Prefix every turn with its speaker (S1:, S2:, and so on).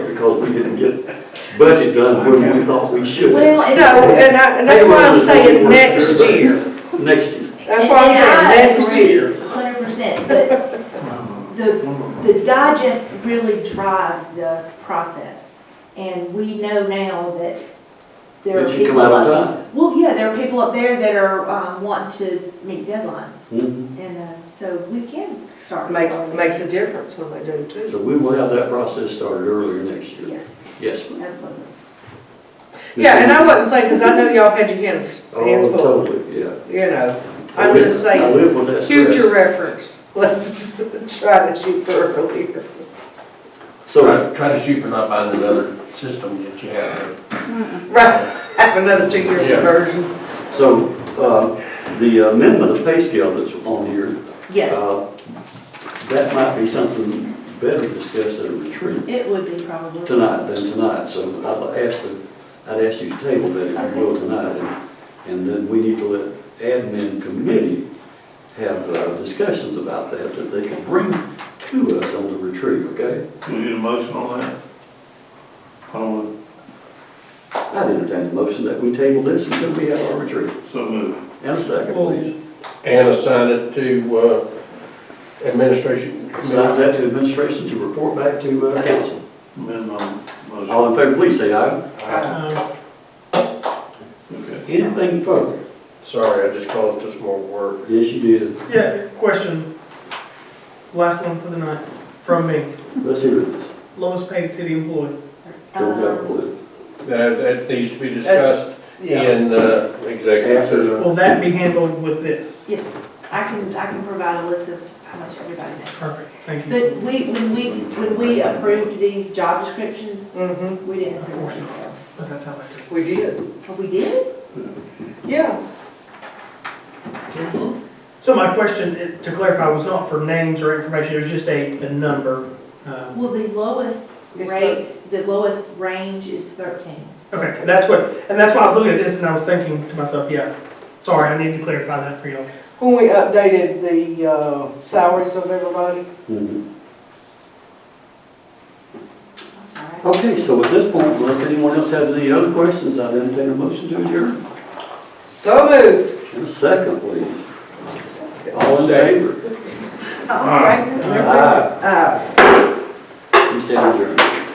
S1: because we didn't get budget done when we thought we should.
S2: Well, and.
S3: No, and I, and that's why I'm saying next year.
S1: Next year.
S3: That's why I'm saying next year.
S2: Hundred percent, but the, the digest really drives the process. And we know now that there are
S1: Did you come
S2: people
S1: out
S2: up.
S1: on
S2: Well, yeah, there are people up there that are, um, wanting to meet deadlines.
S1: time?
S2: And, uh, so we can start.
S3: Makes,
S2: early.
S3: makes a difference when they do too.
S1: So we will have that process started earlier next year.
S2: Yes,
S1: Yes. ma'am.
S2: absolutely.
S3: Yeah, and I wasn't saying, because I know y'all had your hands, hands
S1: Oh,
S3: full,
S1: totally, yeah.
S3: you know. I'm just
S1: I
S3: saying,
S1: live with that stress.
S3: Future reference, let's try to shoot for earlier.
S1: So,
S4: Try, try to shoot for not buying another system that you have.
S3: Right, have another two-year
S4: Yeah.
S3: conversion.
S1: so, uh, the amendment of pay scale that's on here,
S2: Yes,
S1: uh, that might be something better discussed at a retreat
S2: it would be probably.
S1: tonight than tonight. So I'd ask the, I'd ask you to table that if you will tonight. and- And then we need to let admin committee have uh, discussions about that, that they can bring to us on the retreat, okay?
S5: We need a motion on that? On
S1: I'd entertain a motion that we table this until we have our retreat.
S5: the, so move.
S1: And a second, please.
S4: And assign it to, uh, administration.
S1: Assign that to administration to report back to uh, council.
S5: amend my motion.
S1: All in favor, please say aye.
S3: Uh,
S6: Um,
S5: Okay.
S1: Anything further?
S4: Sorry, I just caused us more work.
S1: Yes, you did.
S6: Yeah, question, last one for the night, from me,
S1: Let's hear this.
S6: lowest paid city employee.
S1: Don't have a
S2: Um,
S1: clue.
S4: That, that needs to be
S3: That's-
S4: discussed
S3: Yeah,
S4: in, uh, executive session.
S6: Will that be handled with this?
S2: Yes, I can, I can provide a list of how much everybody makes.
S6: Perfect, thank you.
S2: But we, when we, when we approved these job descriptions,
S3: mm-hmm,
S2: we didn't approve ours, so.
S6: But that's how I do it.
S3: we did,
S2: Oh, we did?
S3: yeah. Mm-hmm.
S6: So my question, eh, to clarify, was not for names or information, it was just a, a number. Um,
S2: Well, the lowest
S3: It's
S2: rate, the lowest range is thirteen.
S6: Okay, that's what, and that's why I was looking at this and I was thinking to myself, yeah, sorry, I need to clarify that for y'all.
S3: When we updated the uh, salaries of everybody,
S1: Mhm.
S2: I'm sorry.
S1: Okay, so at this point, unless anyone else has any other questions, I'd entertain a motion to adjourn.
S3: so moved.
S1: And a second, please. All in favor?
S3: I'll second.
S1: Aye.
S3: Uh,
S1: We stand adjourned.